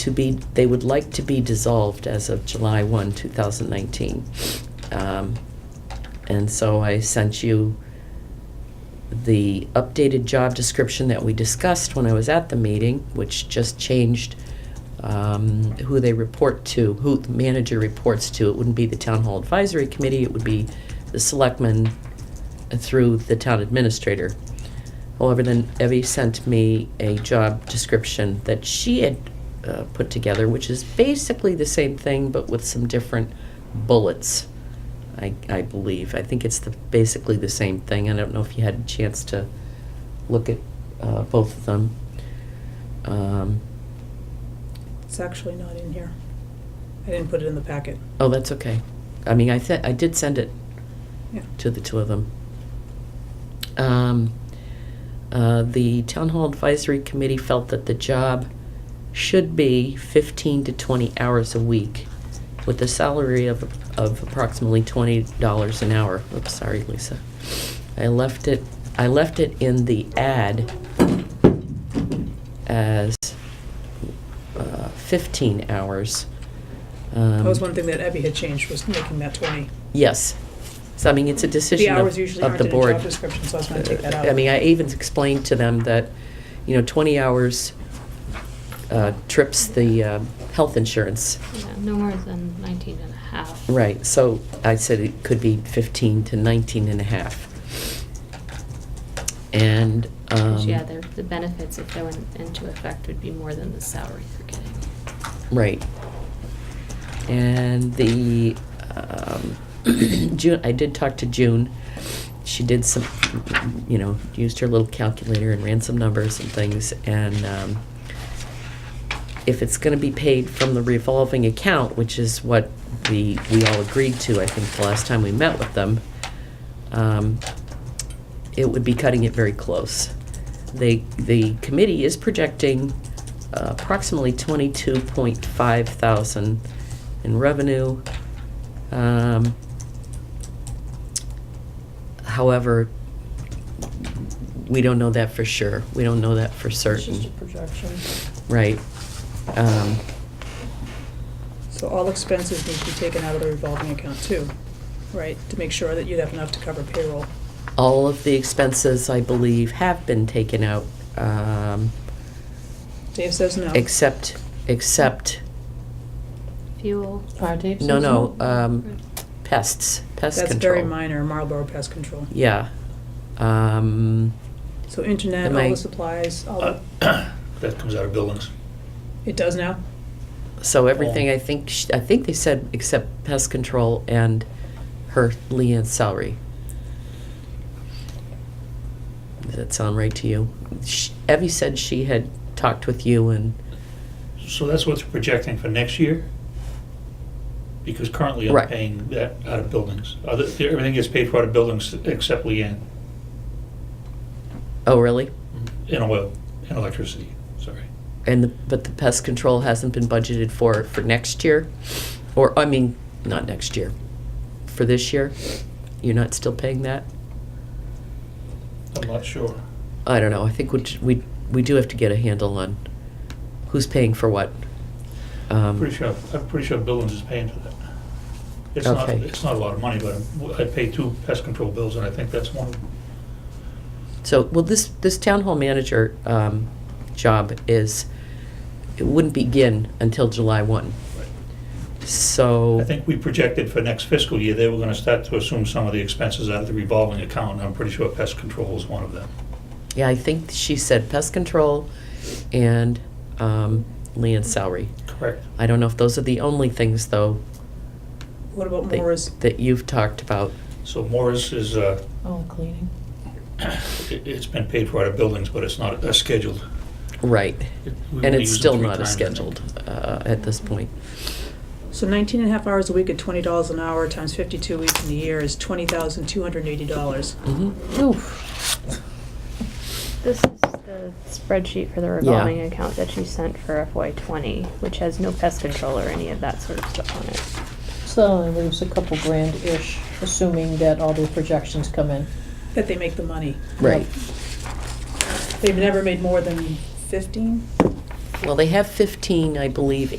to be, they would like to be dissolved as of July 1, 2019. Um, And so I sent you the updated job description that we discussed when I was at the meeting, which just changed um, who they report to, who the manager reports to. It wouldn't be the Town Hall Advisory Committee, it would be the selectmen through the town administrator. However, then Evie sent me a job description that she had uh, put together, which is basically the same thing, but with some different bullets, I, I believe. I think it's the, basically the same thing. I don't know if you had a chance to look at uh, both of them. Um, It's actually not in here. I didn't put it in the packet. oh, that's okay. I mean, I, th- I did send it Yeah. to the two of them. Um, uh, The Town Hall Advisory Committee felt that the job should be 15 to 20 hours a week with a salary of, of approximately $20 an hour. Oops, sorry, Lisa. I left it, I left it in the ad as uh, 15 hours. That was Um, one thing that Abby had changed, was making that 20. Yes. So, I mean, it's a The decision of of hours the usually board. aren't in a job description, so I was gonna take that out. Uh, I mean, I even explained to them that, you know, 20 hours uh, trips the um, health insurance. Yeah, no more than 19 and a half. Right, so I said it could be 15 to 19 and a half. And, Because, um, Yeah, the, the benefits, if they went into effect, would be more than the salary you're getting. right. And the, um, June, I did talk to June. She did some, you know, used her little calculator and ran some numbers and things, and, um, if it's gonna be paid from the revolving account, which is what the, we all agreed to, I think, the last time we met with them, um, it would be cutting it very close. They, the committee is projecting uh, approximately twenty-two point five thousand in revenue. Um, However, we don't know that for sure. We don't know that for It's just a certain, projection. right? Um, So all expenses need to be taken out of the revolving account too, right? To make sure that you'd have enough to cover payroll. All of the expenses, I believe, have been taken out, um, Dave says no. except, except, Fuel. Fire tape no, no, season? um, pests, pest control. That's very minor, Marlboro pest control. Yeah. Um, So internet, Am all I- the supplies, all, the- Uh, That comes out of buildings. it does now? so everything, I think, sh- I think they said except pest control and her Leanne's salary. Does that sound right to you? Sh- Evie said she had talked with you and, So that's what's projecting for next year? Because currently I'm Right. paying that out of buildings. Other, everything gets paid for out of buildings except Leanne, oh, really? and oil, and electricity, sorry. And, the- but the pest control hasn't been budgeted for, for next year? Or, I mean, not next year, for this year? You're not still paying that? I'm not sure. I don't know, I think we, we, we do have to get a handle on who's paying for what. Um, Pretty sure, I'm pretty sure buildings is paying for that. It's not, Okay. it's not a lot of money, but I'm- I pay two pest control bills, and I think that's one of them. So, well, this, this town hall manager um, job is, it wouldn't begin until July 1. So. I think we projected for next fiscal year, they were gonna start to assume some of the expenses out of the revolving account, and I'm pretty sure pest control is one of them. Yeah, I think she said pest control and um, Leanne's salary. Correct. I don't know if those are the only things, though, What about Moore's? that, that you've talked about. So Morris is, uh, Oh, cleaning. It- It's been paid for out of buildings, but it's not uh, scheduled. Right. It- we And only it's use it still three not as times, I think. scheduled uh, at this point. So 19 and a half hours a week at $20 an hour times 52 weeks in a year is $20,280. Mhm. This is the spreadsheet for the revolving account that you sent for FY twenty, which has no pest control or any of that sort of stuff on it. So it leaves a couple grand-ish, assuming that all the projections come in. That they make the money. Right. They've never made more than 15? Well, they have 15, I believe,